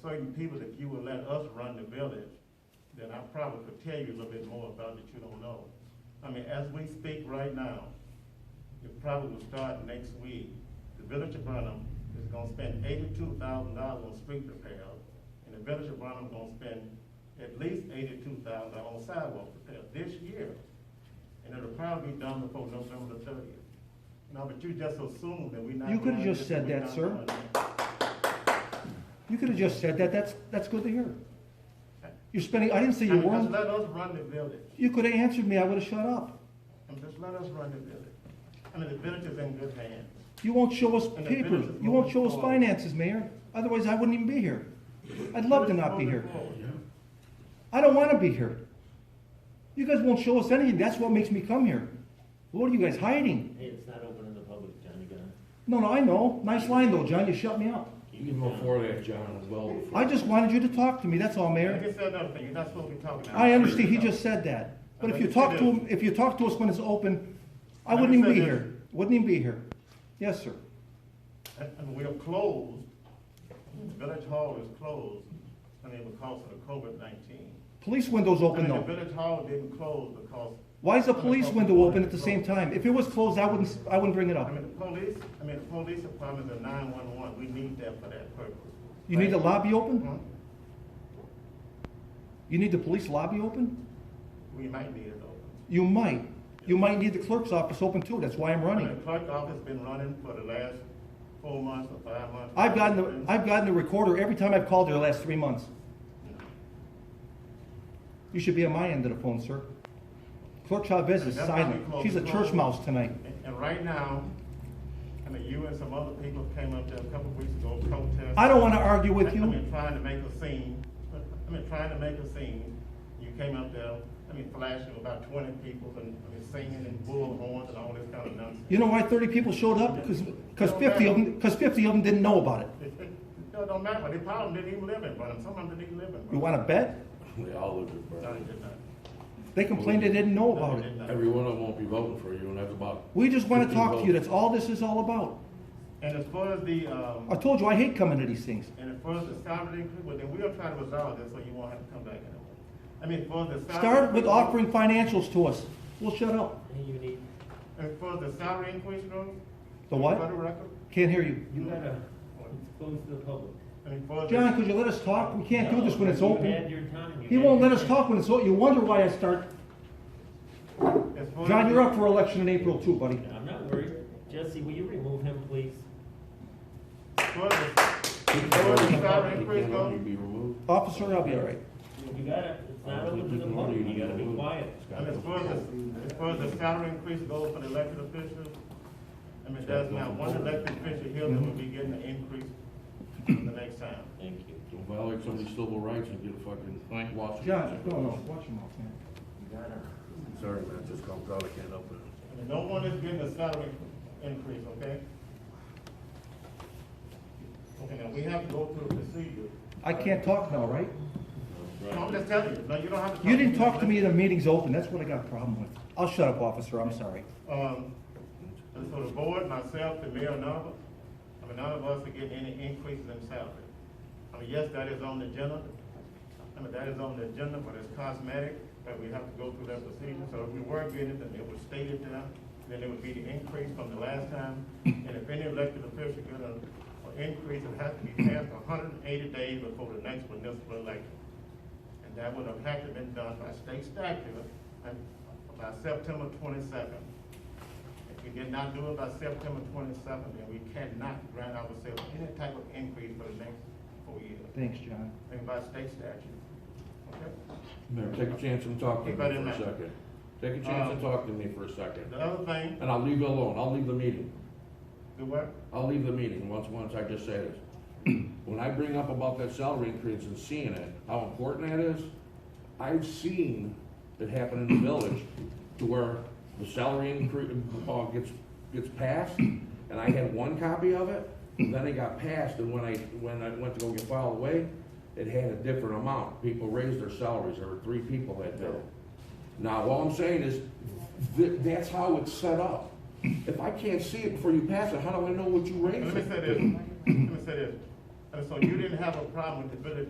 certain people, if you would let us run the village, then I probably could tell you a little bit more about that you don't know. I mean, as we speak right now, it probably will start next week. The village of Burnham is gonna spend eighty-two thousand dollars on street repairs, and the village of Burnham gonna spend at least eighty-two thousand dollars on sidewalk repairs this year. And it'll probably be done before November the thirtieth. Now, but you just assumed that we not. You could've doing just this, said we that, not sir. doing that. You could have just said that, that's, that's good to hear. You're spending, I didn't say you I mean, Just weren't, let us run the village, you could have answered me, I would have shut up. and just let us run the village. I mean, the village is in good hands. You won't show us And the papers, village is you won't moving show us forward. finances, Mayor, otherwise I wouldn't even be here. I'd love to not be here. Moving forward. I don't wanna be here. You guys won't show us anything, that's what makes me come here. What are you guys hiding? Hey, it's not open to the public, Johnny Gunn. No, no, I know, nice line though, John, you shut me up. Even before that, John, as well. before- I just wanted you to talk to me, that's all, I Mayor. just said another thing, you're not supposed to be talking. now. I understand, he just said that. But if you talk to him, if you talk to us when it's open, I wouldn't even be here, wouldn't even be here. Yes, sir. And, and we are closed, the village hall is closed, I mean, because of the COVID nineteen. Police window's I open mean, the though. village hall didn't close because, Why is the police window open at the same time? If it was closed, I wouldn't, I wouldn't bring it I up. mean, the police, I mean, the police department, the nine-one-one, we need that for that purpose. You need the lobby Mhm. open? You need the police lobby open? We might need it open. You might. You might need the clerk's office open too, that's why I'm I mean, running. The clerk office been running for the last four months or five months. I've gotten, the I've gotten the recorder every time I've called there the last three months. You should be on my end of the phone, sir. Clerk Chavez is That's why we silent. close She's a the church phone. mouse tonight. And- And right now, I mean, you and some other people came up there a couple of weeks ago protesting. I don't wanna argue with I you. mean, trying to make a scene, I mean, trying to make a scene, you came up there, I mean, flashing about twenty people and, I mean, singing and bullhorns and all this kind of nonsense. You know why thirty people showed up? Cause, 'cause fifty of them, cause fifty of them didn't know about it. It, it, it don't matter, they probably didn't even live in Burnham, some of them didn't even live in Burnham. You wanna bet? They all lived in No, they Burlington. did not. They complained they didn't know No, they about it. did not. Every one of them won't be voting for you, and that's about. We just want to 15 talk to you. votes. That's all this is all about. And as far as the, um. I told you I hate coming to these things. And as far as the salary increase, well, then we'll try to resolve this so you won't have to come back anymore. I mean, as far as the salary. Start with offering financials to us. We'll shut up. Hey, you need, As far as the salary increase goes. The what? For the record, Can't hear you. you gotta, it's closed to the public. I mean, for the. John, could you let us talk? We can't do this when it's You had open. your time. You He had won't your let us time. talk when it's open. You wonder why I start. as far as John, the- you're up for election in April too, buddy. I'm not worried. Jesse, will you remove him, please? as far as the- He can vote in the public, he Sorry, Chris, can't go. only be removed. Officer, I'll be all right. You gotta, it's not open to the People public. only You gotta be removed. quiet. I mean, as far as, the- as far as the salary increase goes for the elected officials, I mean, there's not one elected official here that will be getting an increase the next time. Thank you. Don't violate somebody's civil rights and get a fucking blank watch. John, no, no, watch your mouth, man. Sorry, man, just called, probably can't open I mean, no one is getting a salary increase, okay? Okay, now, we have to go through the procedure. I can't talk now, right? it. No, I'm just telling you, no, you don't have to. You didn't talk to me in the meeting's open. That's what I got a problem with. I'll shut up, officer. I'm sorry. Um, and so the board, myself, the mayor, none of us, I mean, none of us are getting any increases in salary. I mean, yes, that is on the agenda, I mean, that is on the agenda, but it's cosmetic, that we have to go through that procedure, so if we were getting it, then it would state it down, then it would be the increase from the last time, and if any elected official get an, an increase, it has to be passed hundred and eighty days before the next municipal election. And that would have had to been done by state statute, and by September twenty-second. If we did not do it by September twenty-seventh, then we cannot grant ourselves any type of increase for the next four years, Thanks, John. and by state statute. Okay? Mayor, take a chance and talk to me Keep for that in a mind. second. Take a chance and talk to me for a second. The other thing, And I'll leave you alone, I'll leave the meeting. the what? I'll leave the meeting once, once I just say this. When I bring up about that salary increase and seeing it, how important that is, I've seen it happen in the village to where the salary increase, uh, gets, gets passed, and I had one copy of it, and then it got passed, and when I, when I went to go get filed away, it had a different amount. People raised their salaries, there were three people that did it. Now, all I'm saying is, th- that's how it's set up. If I can't see it before you pass it, how do I know what you Let raised me it? say this, let me say this. And so you didn't have a problem with the village